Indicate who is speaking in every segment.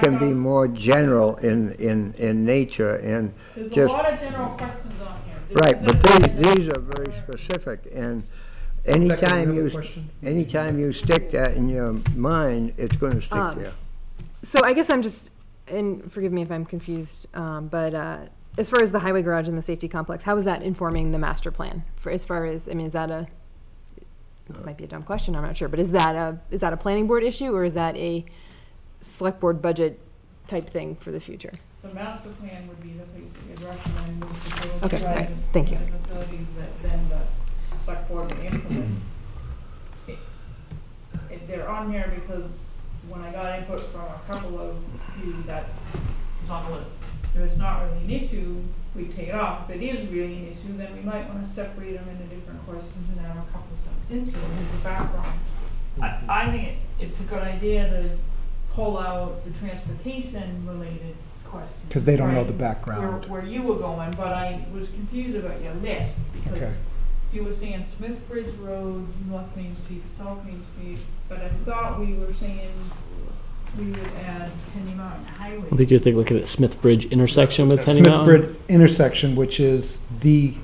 Speaker 1: can be more general in, in, in nature and
Speaker 2: There's a
Speaker 1: just,
Speaker 2: lot of general questions on here. There's
Speaker 1: right, but
Speaker 2: just-
Speaker 1: these, these are very specific and anytime you, anytime you stick that in your mind, it's gonna stick
Speaker 3: Um,
Speaker 1: there.
Speaker 3: So I guess I'm just, and forgive me if I'm confused, um, but, uh, as far as the highway garage and the safety complex, how is that informing the master plan? For, as far as, I mean, is that a, this might be a dumb question, I'm not sure, but is that a, is that a planning board issue or is that a select board budget type thing for the future?
Speaker 2: The master plan would be the place that you'd recommend the facilities.
Speaker 3: Okay, all right,
Speaker 2: and
Speaker 3: thank you.
Speaker 2: The facilities that then the select board would implement. It- it- They're on here because when I got input from a couple of you that was on the list, if it's not really an issue, we take it off. If it is really an issue, then we might wanna separate them into different questions and have a couple steps into it as a background. I, I think it- it's a good idea to pull out the transportation related questions.
Speaker 4: Because they don't know
Speaker 2: right?
Speaker 4: the
Speaker 2: Where,
Speaker 4: background.
Speaker 2: where you were going, but I was confused about your list,
Speaker 4: Okay.
Speaker 2: because you were saying Smith Bridge Road, North Main Street, South Main Street, but I thought we were saying we would add Penny Mountain Highway.
Speaker 5: I think you're thinking, looking at Smith Bridge intersection with Penny
Speaker 4: Smith
Speaker 5: Mountain.
Speaker 4: Bridge intersection, which is the,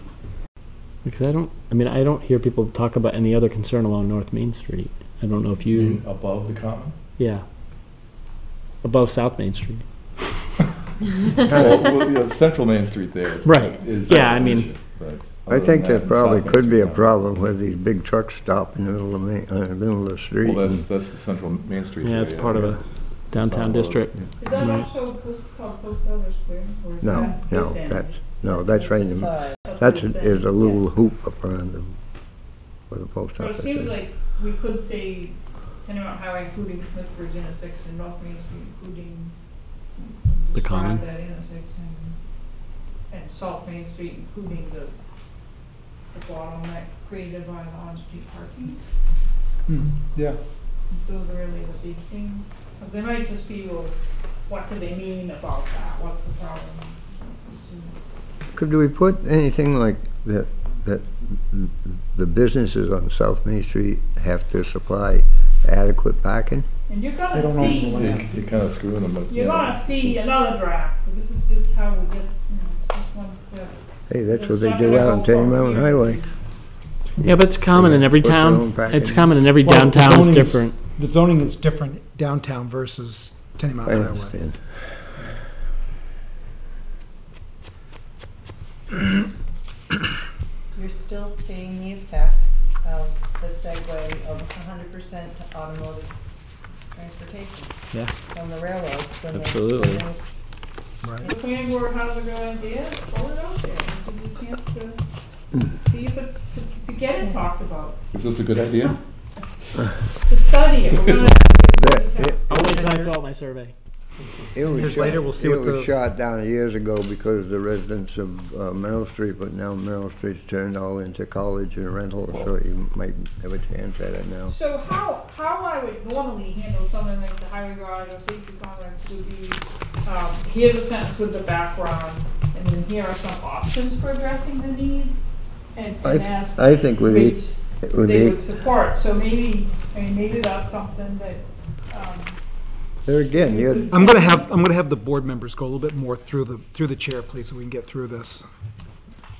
Speaker 5: Because I don't, I mean, I don't hear people talk about any other concern along North Main Street. I don't know if you,
Speaker 4: Mm-hmm.
Speaker 1: Mm-hmm.
Speaker 6: In above the common?
Speaker 5: yeah. Above South Main Street.
Speaker 6: Well, well, yeah, Central Main Street there
Speaker 5: Right.
Speaker 6: is.
Speaker 5: Yeah, I mean-
Speaker 1: I think there probably could be a problem with these big trucks stop in the middle of the, uh, middle of the street.
Speaker 6: Well, that's, that's the Central Main Street.
Speaker 5: Yeah, it's part of a downtown
Speaker 6: South Road.
Speaker 5: district.
Speaker 2: Is that
Speaker 5: Right.
Speaker 2: also post, called Post Elder Square, or is
Speaker 1: No,
Speaker 2: that?
Speaker 1: no,
Speaker 2: this end?
Speaker 1: that's, no, that's right, in the-
Speaker 2: That's
Speaker 1: that's,
Speaker 2: this
Speaker 1: is
Speaker 2: end,
Speaker 1: a
Speaker 2: yeah.
Speaker 1: little hoop up around the, where the post
Speaker 2: So it
Speaker 1: office
Speaker 2: seems
Speaker 1: is.
Speaker 2: like we could say Tenny Mountain Highway including Smith Bridge intersection, North Main Street including.
Speaker 5: The
Speaker 2: describe
Speaker 5: common.
Speaker 2: That intersection, and South Main Street including the, the bottleneck created by the on-street parking.
Speaker 4: hmm, yeah.
Speaker 2: And so those are really the big things, because they might just be, well, what do they mean about that, what's the problem? What's the issue?
Speaker 1: Could we put anything like that, that the businesses on South Main Street have to supply adequate parking?
Speaker 2: And you're
Speaker 4: They
Speaker 2: gonna
Speaker 4: don't own the
Speaker 2: see,
Speaker 4: land.
Speaker 6: You're kind of screwing them, but.
Speaker 2: you're
Speaker 6: you know,
Speaker 2: gonna see
Speaker 6: it's-
Speaker 2: another draft, this is just how we get, you know, it's just one step.
Speaker 1: Hey, that's what
Speaker 2: It's
Speaker 1: they
Speaker 2: not
Speaker 1: do
Speaker 2: gonna
Speaker 1: out
Speaker 2: go
Speaker 1: on Tenny
Speaker 2: from
Speaker 1: Mountain
Speaker 2: here.
Speaker 1: Highway.
Speaker 5: Yeah, but it's common in every
Speaker 1: Put your
Speaker 5: town.
Speaker 1: own back
Speaker 5: It's
Speaker 1: in.
Speaker 5: common in every
Speaker 4: Well,
Speaker 5: downtown. It's
Speaker 4: zoning is-
Speaker 5: different.
Speaker 4: The zoning is different downtown versus Tenny
Speaker 1: I
Speaker 4: Mountain Highway.
Speaker 1: understand.
Speaker 7: You're still seeing the effects of the segue of hundred percent to automotive transportation.
Speaker 5: Yeah.
Speaker 7: From the railroads. when they-
Speaker 5: Absolutely.
Speaker 7: when this-
Speaker 4: Right.
Speaker 2: The planning board has a good idea, pull it out there, give you a chance to see if it, to, to get it talked about,
Speaker 6: Is this a good idea?
Speaker 2: to study it, we're gonna.
Speaker 1: That-
Speaker 5: I'll wait till I fill out my survey.
Speaker 1: It was
Speaker 4: Years later,
Speaker 1: shot-
Speaker 4: we'll see what
Speaker 1: It was
Speaker 4: the-
Speaker 1: shot down years ago because the residents of uh, Merrill Street, but now Merrill Street's turned all into college and rental, so you might have a chance at it now.
Speaker 2: So how, how I would normally handle something like the highway guard or safety complex would be, um, here's a sentence with the background, and then here are some options for addressing the need, and,
Speaker 1: I
Speaker 2: and
Speaker 1: th-
Speaker 2: ask
Speaker 1: I think with
Speaker 2: which
Speaker 1: each, with
Speaker 2: they
Speaker 1: each,
Speaker 2: would support, so maybe, I mean, maybe that's something that, um,
Speaker 1: there again,
Speaker 2: you
Speaker 1: you
Speaker 2: could.
Speaker 4: I'm gonna
Speaker 2: say.
Speaker 4: have, I'm gonna have the board members go a little bit more through the, through the chair, please, so we can get through this.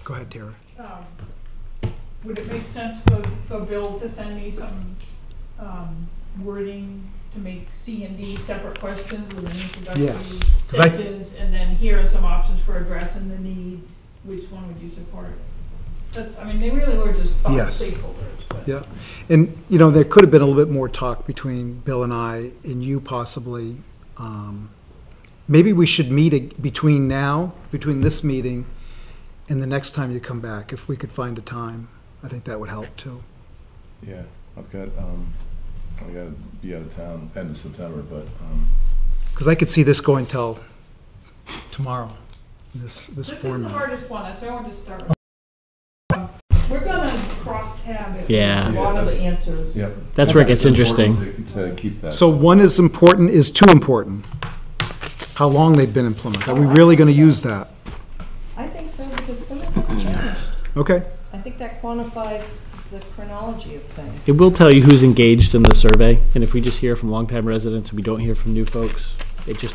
Speaker 4: Go ahead, Tara.
Speaker 2: um, would it make sense for, for Bill to send me some, um, wording to make C and D separate questions with an introductory
Speaker 4: Yes, 'cause I-
Speaker 2: sentence? And then here are some options for addressing the need, which one would you support? That's, I mean, they really were just thought
Speaker 4: Yes.
Speaker 2: placeholders, but.
Speaker 4: Yeah, and, you know, there could have been a little bit more talk between Bill and I, and you possibly. Um, Maybe we should meet ag- between now, between this meeting and the next time you come back, if we could find a time. I think that would help too.
Speaker 6: Yeah, I've got, um, I gotta be out of town end of September, but, um,
Speaker 4: Because I could see this going till tomorrow, this, this
Speaker 2: This is the
Speaker 4: format.
Speaker 2: hardest one, that's why I wanted to start with. Um, We're gonna cross tab it.
Speaker 5: Yeah.
Speaker 2: A lot of the
Speaker 6: Yeah,
Speaker 2: answers.
Speaker 6: yeah.
Speaker 5: That's where it gets
Speaker 6: It's important
Speaker 5: interesting.
Speaker 6: To to keep that.
Speaker 4: So one is important, is too important. How long they've been implemented. Are we really going to use that?
Speaker 7: I think so, because Plymouth has changed.
Speaker 4: Okay,
Speaker 7: I think that quantifies the chronology of things.
Speaker 5: It will tell you who's engaged in the survey. And if we just hear from longtime residents and we don't hear from new folks, it just